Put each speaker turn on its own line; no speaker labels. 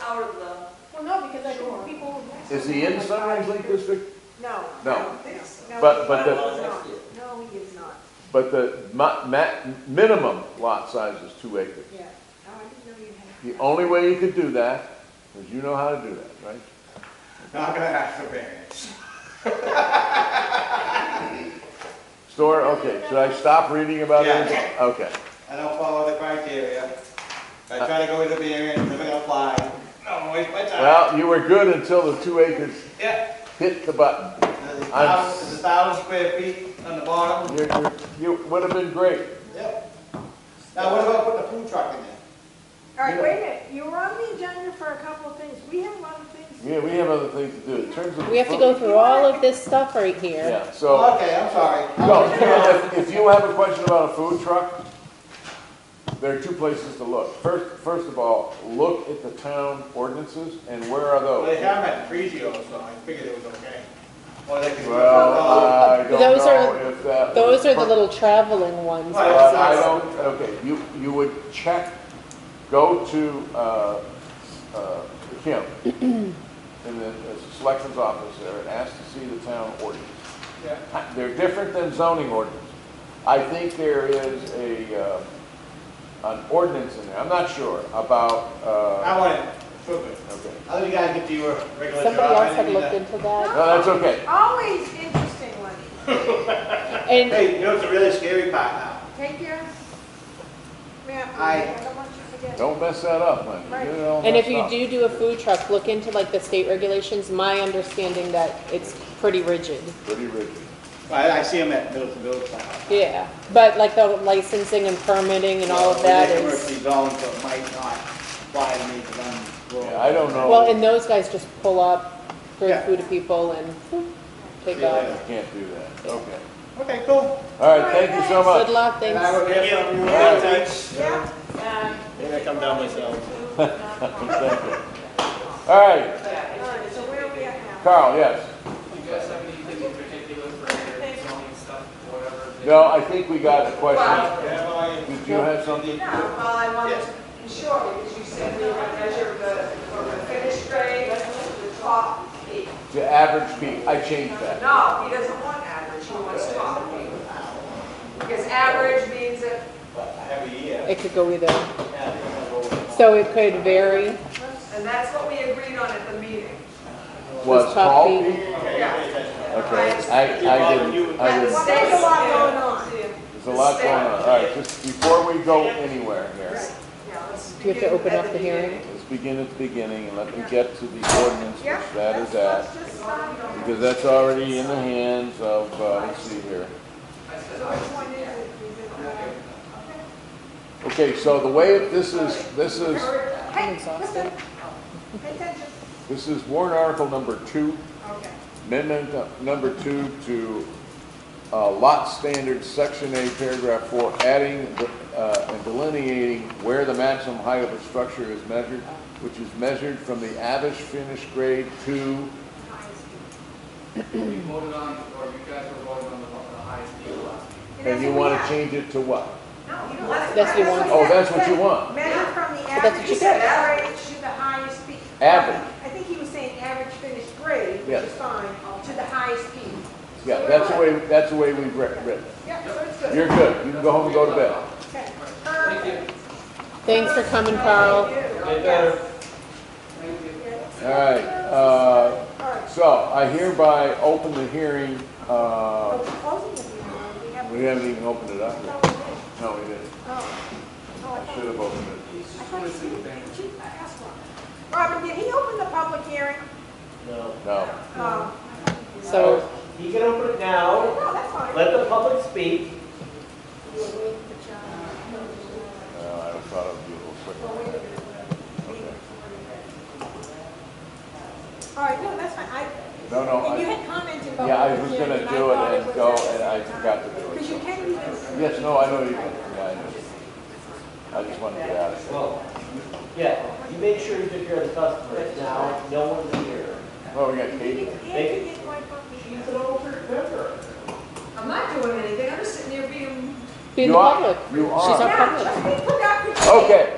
out of the,
Well, no, because I
Sure.
think people.
Is he in Sunrise Lake District?
No.
No.
No,
But- but the-
he is not. No, he is not,
But the ma, ma, minimum lot size is two acres.
yeah. Oh, I didn't know you had.
The only way you could do that is you know how to do that, right?
Not gonna ask for variance.
Store, okay, should I stop reading about it? Okay.
I don't follow the criteria. I try to go with the variance, never apply. No, waste my time.
Well, you were good until the two acres
Yeah,
hit the button.
there's a
I'm-
thousand, there's a thousand square feet on the bottom.
You, you, you would have been great.
Yep. Now, what about putting a food truck in there?
All right, wait a minute, you were on the agenda for a couple of things, we have a lot of things.
Yeah, we have other things to do. In terms of.
We have to go through all of this stuff right here.
Yeah, so.
Okay, I'm sorry.
No, if- if you have a question about a food truck, there are two places to look. First, first of all, look at the town ordinances, and where are
Well, they
those?
have at Prezio, so I figured it was okay. Or they could.
Well, I don't
Those are-
know if that.
Those are the little traveling ones.
Right.
But I don't, okay, you, you would check, go to, uh, uh, Kim, in the the selections office there, and ask to see the town ordinance.
Yeah.
They're different than zoning ordinance. I think there is a, uh, an ordinance in there, I'm not sure, about, uh,
I want it, food.
okay.
I'll let you guys get to your regular job.
Somebody else
I
had
need
looked
to-
into that.
No, that's okay.
Always interesting, Lenny,
And
Hey, you know, it's a really scary part now.
take care. Ma'am,
Aye.
I don't want you to forget.
Don't mess that up, man. You get it all
and if
messed
you
up.
do do a food truck, look into like the state regulations. My understanding that it's pretty rigid.
Pretty rigid.
I, I see them at Middleton Village. now.
Yeah, but like the licensing and permitting and all of that
They're
is,
Commercially zoned, so it might not apply to me, because I'm rural.
Yeah, I don't know.
well, and those guys just pull up, throw
Yeah.
food to people and whoop,
See
take
you
off.
later.
Can't do that, okay.
Okay, cool.
All right, thank you so much.
Good luck,
And
thanks.
I will hear from you in a few weeks.
Yeah,
um,
Maybe I come down myself.
All right,
yeah,
all right, so where are we at now?
Carl, yes.
Do you guys have anything in particular for your zoning stuff, whatever?
No, I think we got a question.
Well-
Yeah, well, I-
Did you have something?
No, well, I wanted
Yes.
to ensure, because you said we were gonna measure the, from the finished grade to the top peak.
To average peak, I changed that.
No, he doesn't want average, he wants top peak. Because average means that
I have a year.
It could go either.
Yeah, I think I'll go with-
So it could vary.
And that's what we agreed on at the meeting.
Was
top
tall
peak.
peak?
Okay,
Yeah.
pay attention.
Okay, I, I didn't, I
There's
didn't.
a lot going on.
There's a lot going on. All right, just before we go anywhere here,
Yeah, let's
Do you have to
begin
open
at
up the hearing?
beginning.
let's begin at the beginning and let me get to the ordinance, which
Yeah.
that
let's-
is at.
let's just sign it.
Because that's already in the hands of, uh, let's see here.
So which one is it? Is it the-
Okay, so the way it- this is, this is,
okay. Hey, listen,
exhausted.
pay attention.
this is warrant article number two,
Okay.
amendment number two to uh, lot standards, section A, paragraph four, adding uh, and delineating where the maximum height of a structure is measured, which is measured from the average finish grade to
You voted on, or you guys were voting on the the highest deal last week.
And you want to change it to what?
No, you don't want it.
That's what you want.
Oh, that's what you want.
Measure from the
That's what
average
you
grade
said.
to the highest peak.
Average.
I think he was saying average finished grade, which
Yes.
is fine, to the highest peak.
Yeah, that's the way, that's the way we've writ- written it.
Yeah, so it's good.
You're good, you can go home and go to bed.
Okay.
Thank you.
Thanks for coming, Carl.
They
Yes.
better. Thank you.
All right, uh,
All right.
so I hereby open the hearing,
So
uh,
Oh, we're closing it now. We have.
we haven't even opened it up
Oh,
yet.
we did.
No, we didn't.
Oh. Oh, I
I
thought-
should have opened
I
it.
thought you did. You- I asked Robin. Robin, did he open the public hearing?
No.
No. uh,
Um,
So
You can open it now,
No, that's fine.
let the public speak.
Well, I thought it would be a little quicker.
All right, no, that's fine, I.
No, no,
And you
I,
had commented about.
yeah, I was
the
gonna
hearing,
do
I thought
it and
was
go,
at-
and I forgot to do
Because you
it.
can't even.
Yes, no, I know you, yeah, I know. I just wanted to get out of
Well, yeah, you make sure you take care of the customers now, no one's here.
it. Well, we got
You
Katie.
can- and you get one from me.
She's an older member.
I'm not doing anything, I'm just sitting here being
be in
You
the
are-
public.
you
She's
are.
not
Yeah,
public.
just be productive.
Okay.